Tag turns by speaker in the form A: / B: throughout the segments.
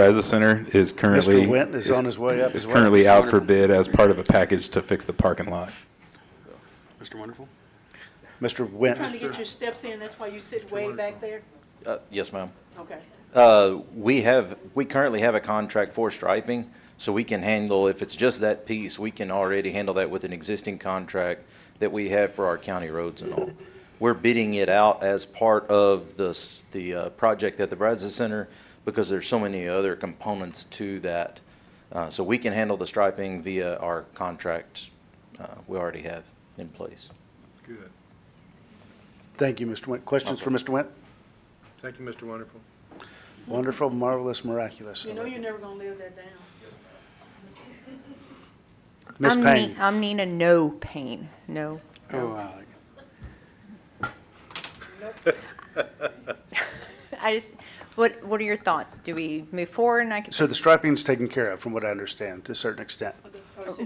A: Plaza Center is currently.
B: Mr. Went is on his way up as
A: Is
B: well.
A: currently out for bid as part of a package to fix the parking lot.
C: Mr. Wonderful?
B: Mr.
D: Trying to
B: Went,
D: get your steps in, that's why you sit way back there?
E: Uh, Yes, ma'am.
D: Okay.
E: Uh, We have, we currently have a contract for striping, so we can handle, if it's just that piece, we can already handle that with an existing contract that we have for our county roads and all. We're bidding it out as part of the, s- the uh, project at the Brazos Center because there's so many other components to that. Uh, So we can handle the striping via our contract uh, we already have in place.
F: Good.
B: thank you, Mr. Went. Questions for Mr. Went?
F: Thank you, Mr. Wonderful.
B: Wonderful, marvelous, miraculous.
D: You know you're never gonna live that down.
B: Ms.
G: I'm
B: Payne?
G: Ni- I'm Nina No Payne. No.
C: Oh, I like it.
G: I just, what, what are your thoughts? Do we move forward and I can?
B: So the striping's taken care of, from what I understand, to a certain extent.
G: Uh,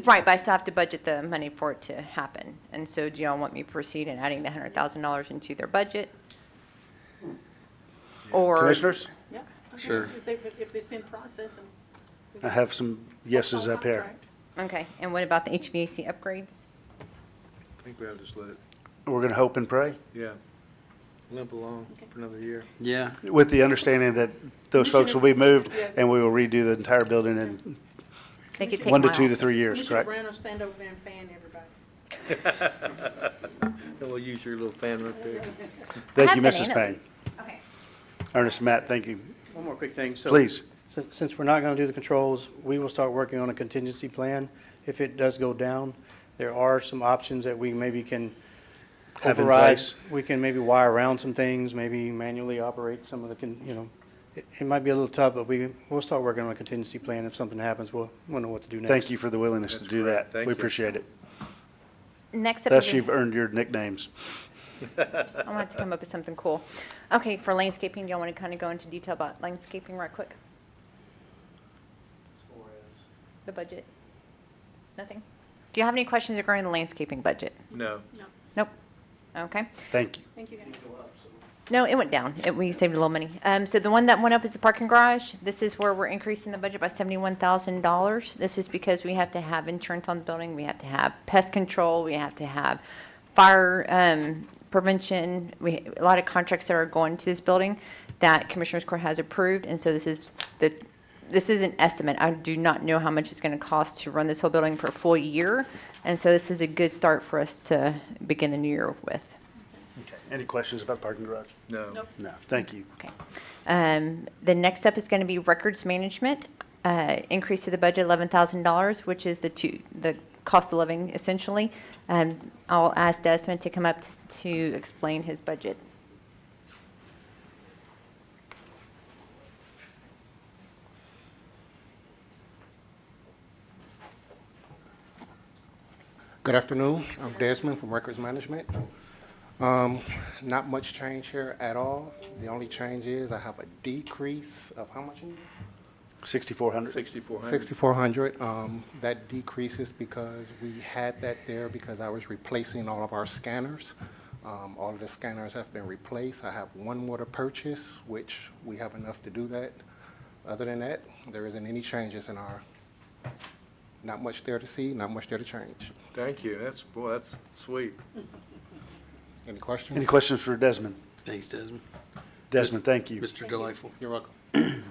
G: Right, but I still have to budget the money for it to happen. And so do y'all want me to proceed in adding the hundred thousand dollars into their budget? Or,
B: Commissioners,
D: Yeah. okay,
C: Sure.
D: If they, if it's in process and.
B: I have some yeses
G: Oh,
B: up here.
D: Contract.
G: okay, and what about the HVAC upgrades?
F: I think we ought to just let it,
B: We're going to hope and pray,
F: yeah, limp along for another year.
C: Yeah,
B: with the understanding that those folks will be moved, and we will redo the entire building in
G: They could take
B: one to
G: my
B: two to
G: office.
B: three years,
D: Commissioner
B: correct?
D: Brown will stand over there and fan everybody.
F: And we'll use your little fan right there.
B: Thank you,
G: I have
B: Mrs.
G: bananas.
B: Payne. Ernest, Matt, thank you.
H: One more quick thing. So,
B: Please.
H: sin- Since we're not going to do the controls, we will start working on a contingency plan. If it does go down, there are some options that we maybe can
B: Have in
H: override.
B: place.
H: We can maybe wire around some things, maybe manually operate some of the, con- you know, it it might be a little tough, but we, we'll start working on a contingency plan. If something happens, we'll, we'll know what to do next.
B: Thank you for the willingness to
F: That's
B: do
F: great.
B: that.
F: Thank
B: We
F: you.
B: appreciate it.
G: Next up
B: Thus,
G: is,
B: you've
G: a-
B: earned your nicknames.
G: I'm gonna have to come up with something cool. Okay, for landscaping, do y'all want to kind of go into detail about landscaping right quick? The budget? Nothing? Do you have any questions regarding the landscaping budget?
F: No.
G: Nope. Okay.
B: Thank you.
D: Thank you, guys.
G: No, it went down. It, we saved a little money. Um, so the one that went up is the parking garage. This is where we're increasing the budget by seventy-one thousand dollars. This is because we have to have insurance on the building. We have to have pest control. We have to have fire, um, prevention. We, a lot of contracts that are going to this building that Commissioners Court has approved. And so this is the, this is an estimate. I do not know how much it's gonna cost to run this whole building for a full year. And so this is a good start for us to begin the new year with.
B: Any questions about parking garage?
F: No.
D: Nope.
B: No, thank you.
G: Okay. Um, The next up is going to be records management, uh, increase to the budget $11,000, which is the two, the cost of living essentially. Um, I'll ask Desmond to come up t- to explain his budget.
I: Good afternoon. I'm Desmond from Records Management. Um, Not much change here at all. The only change is I have a decrease of how much?
B: 6,400.
F: Sixty-four hundred.
I: Sixty-four hundred. Um, That decreases because we had that there because I was replacing all of our scanners. Um, All of the scanners have been replaced. I have one more to purchase, which we have enough to do that. Other than that, there isn't any changes in our, not much there to see, not much there to change.
F: Thank you. That's, boy, that's sweet.
I: Any questions?
B: Any questions for Desmond?
C: thanks, Desmond.
B: Desmond, thank you.
C: Mr. Delightful.
I: You're welcome.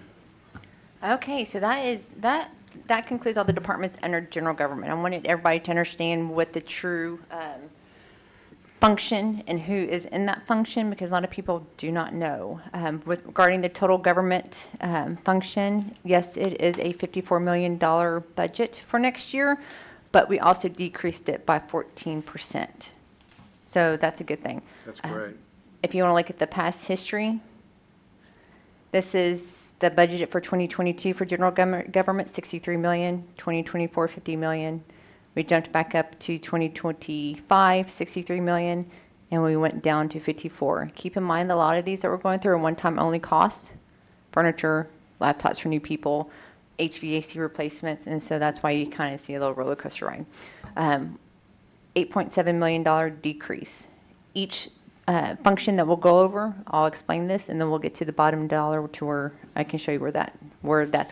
G: Okay, so that is, that, that concludes all the departments under general government. I wanted everybody to understand what the true um, function and who is in that function, because a lot of people do not know. Um, With Regarding the total government um, function, yes, it is a $54 million budget for next year, but we also decreased it by 14%. So that's a good thing.
F: That's
G: Um,
F: great.
G: if you want to look at the past history, this is the budget for 2022 for general government, government, 63 million, 2024, 50 million. We jumped back up to 2025, 63 million, and we went down to 54. Keep in mind, a lot of these that we're going through are one-time only costs, furniture, laptops for new people, HVAC replacements, and so that's why you kind of see a little roller coaster ride. Um, $8.7 million decrease. Each uh, function that we'll go over, I'll explain this, and then we'll get to the bottom dollar to where I can show you where that, where that's